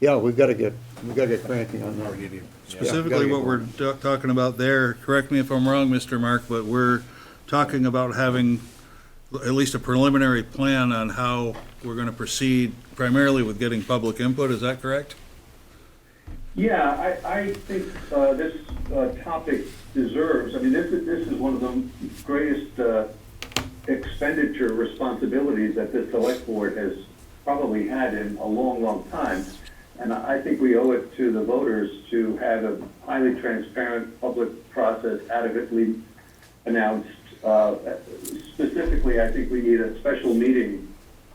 Yeah, we've got to get, we've got to get cranky on that. Specifically, what we're ta- talking about there, correct me if I'm wrong, Mr. Mark, but we're talking about having at least a preliminary plan on how we're gonna proceed primarily with getting public input, is that correct? Yeah, I, I think uh, this uh, topic deserves, I mean, this is, this is one of the greatest uh, expenditure responsibilities that this select board has probably had in a long, long time. And I I think we owe it to the voters to have a highly transparent public process adequately announced. Uh, Specifically, I think we need a special meeting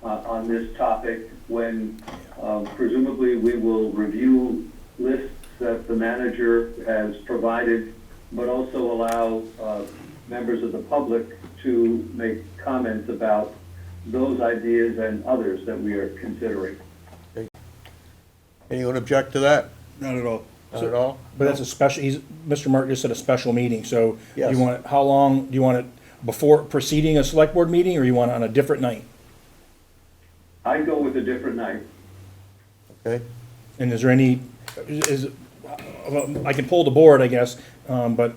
uh, on this topic when um, presumably we will review lists that the manager has provided, but also allow uh, members of the public to make comments about those ideas and others that we are considering. Anyone object to that? Not at all. Not at all? But that's a special, he's, Mr. Mark just said a special meeting, so do Yes. you want, it- how long, do you want it before preceding a select board meeting, or you want it on a different night? I go with a different night. Okay. And is there any, is, well, I can pull the board, I guess, um, but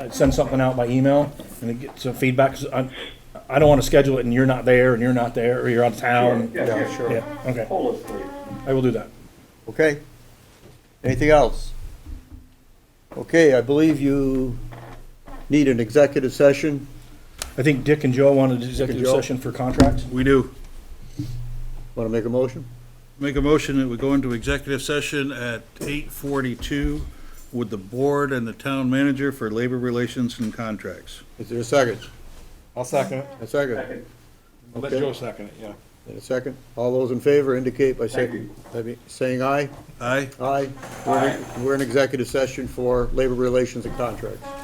I'd send something out by email and then get some feedback, 'cause I, I don't wanna schedule it and you're not there, and you're not there, or you're out of town. Yeah, Yeah, yeah. sure. Yeah, okay, Hold us, please. I will do that. Okay. Anything else? Okay, I believe you need an executive session. I think Dick and Joe wanted executive Joe? session for contract. We do. Want to make a motion? Make a motion that we go into executive session at eight forty-two with the board and the town manager for labor relations and contracts. Is there a second? I'll second it. A second? Second. I'll Let Okay. Joe second it, yeah. And a second? All those in favor indicate by Thank saying, I mean, saying aye. Aye? Aye. We're in- We're in executive session for labor relations and contracts.